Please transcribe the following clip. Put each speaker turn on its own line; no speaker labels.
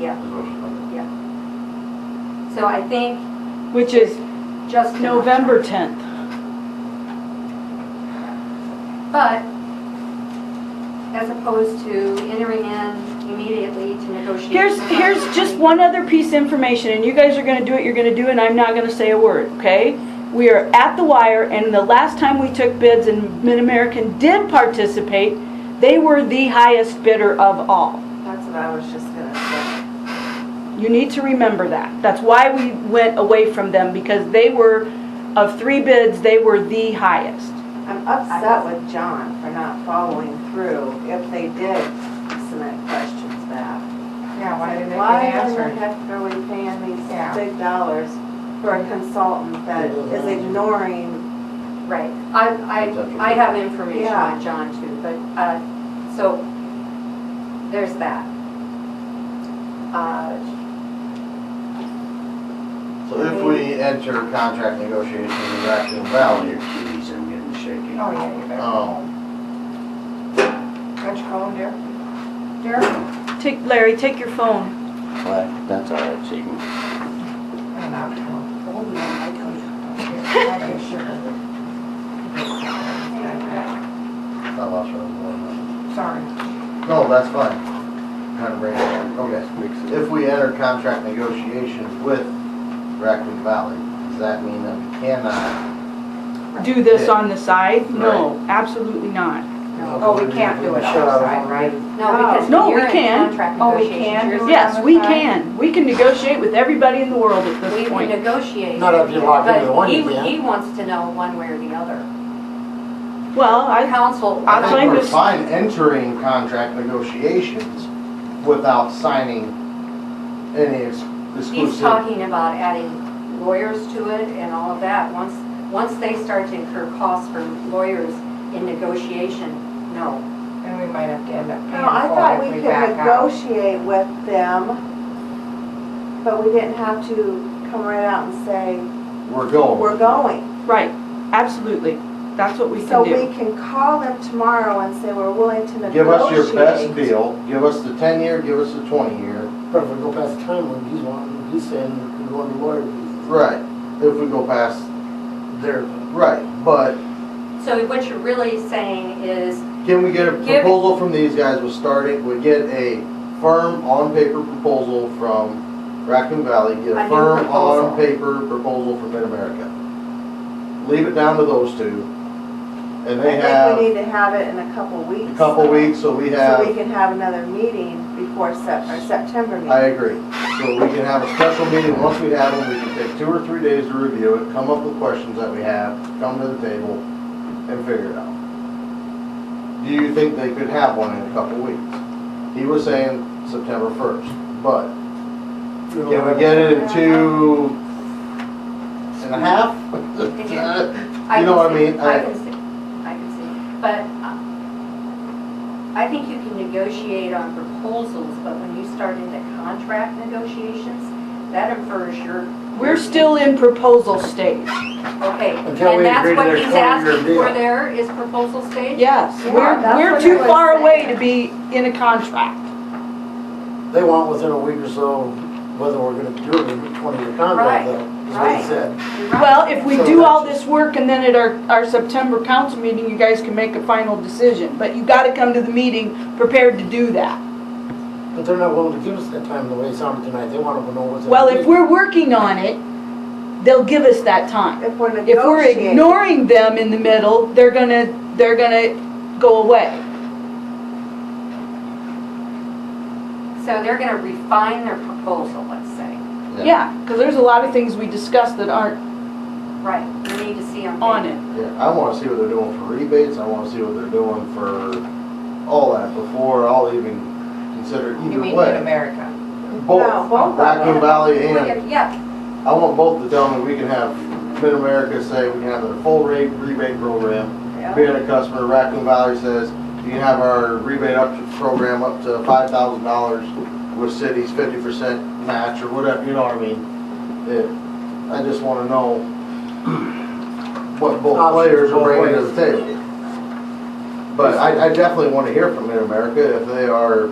Yeah.
Devotional.
So I think
which is
just.
November 10th.
But as opposed to entering in immediately to negotiate.
Here's, here's just one other piece of information, and you guys are gonna do what you're gonna do, and I'm not gonna say a word, okay? We are at the wire, and the last time we took bids and Mid-American did participate, they were the highest bidder of all.
That's what I was just gonna say.
You need to remember that. That's why we went away from them, because they were, of three bids, they were the highest.
I'm upset with John for not following through if they did submit questions back.
Yeah, why didn't they
Why
get
in the
answered?
heck are we paying these
Yeah.
big dollars for a consultant that is ignoring,
Right. I, I, I have information on John too, but, uh, so, there's that. Uh,
So if we enter contract negotiations with Raccoon Valley,
Jeez, I'm getting shaky.
Oh, yeah, you better.
um,
What'd you call him, Derek? Derek?
Take, Larry, take your phone.
Well, that's all right, so you can,
I don't
Oh,
know. Old man, I tell you. I ain't sure.
I lost where I was going.
Sorry.
No, that's fine. Kind of bring it back. Okay. If we enter contract negotiations with Raccoon Valley, does that mean that we cannot?
Do this on the side? No, absolutely not.
oh, we can't do it outside, right?
No, because
Oh. No, we
you're in
can.
contract
Oh, we
negotiations.
can
You're-
do it.
Yes, we can. We can negotiate with everybody in the world at
We
this
can
point.
negotiate.
Not if you lock into the one you
But
can.
he, he wants to know one way or the other.
Well, I,
Council.
I'm
I
fine
think we're
with-
fine entering contract negotiations without signing any ex-
He's
exclusive.
talking about adding lawyers to it and all of that. Once, once they start to incur costs for lawyers in negotiation, no.
And we might have to end up
No, I thought
paying
we
for it if
could
we back out.
negotiate with them, but we didn't have to come right out and say,
We're going.
we're going.
right, absolutely. That's what we
So
can do.
we can call them tomorrow and say, we're willing to negotiate.
Give us your best deal, give us the ten-year, give us the twenty-year.
But if we go past the time when he's wanting, he's saying we can go on the lawyer fees.
Right, if we go past,
There,
right, but
So what you're really saying is,
Can we get a
Give-
proposal from these guys, we'll start it, we get a firm on-paper proposal from Raccoon Valley, get
A
a
new
firm
proposal.
on-paper proposal from Mid-America. Leave it down to those two, and they
I think we
have
need to have it in a couple weeks.
a couple weeks, so we
So we
have,
can have another meeting before Sep, our September
I
meeting.
agree. So we can have a special meeting, once we have them, we can take two or three days to review it, come up with questions that we have, come to the table, and figure it out. Do you think they could have one in a couple weeks? He was saying September first, but
you know,
Can we get it in two and a half?
I
You know what
can
I
see,
mean?
I
I-
can see, I can see. But uh, I think you can negotiate on proposals, but when you start into contract negotiations, that infers your.
We're still in proposal stage.
Okay, and
Until we
that's
agree to
what
their
he's
twenty-year
asking for
deal.
there, is proposal stage?
Yes,
Yeah,
we're,
that's
we're
what I
too
was
far away
saying.
to be in a contract.
They want within a week or so whether we're gonna do it in a twenty-year contract though. is what
right.
he said.
Well, if we
So
do all
that's-
this work and then at our, our September council meeting, you guys can make a final decision. But you gotta come to the meeting prepared to do that.
But they're not willing to give us that time the way it sounded tonight. They want to know what's.
Well, if we're working on it, they'll give us that time.
If we're
If we're
negotiating.
ignoring them in the middle, they're gonna, they're gonna go away.
So they're gonna refine their proposal, let's say.
Yeah, because there's a lot of things we discussed that aren't
Right, we need to see them.
on it.
Yeah, I wanna see what they're doing for rebates, I wanna see what they're doing for all that before I'll even consider
You
either
mean in
way.
America?
No, both of
Both,
them.
Raccoon Valley and,
Yeah,
I want both to tell me we can have Mid-America say we can have their full rate rebate program.
Yeah.
Being a customer, Raccoon Valley says you can have our rebate up to program up to five thousand dollars with cities fifty percent match or whatever, you know what I mean? It- I just wanna know what both
Options
players are
both
bringing to
ways.
the table. But I, I definitely wanna hear from Mid-America if they are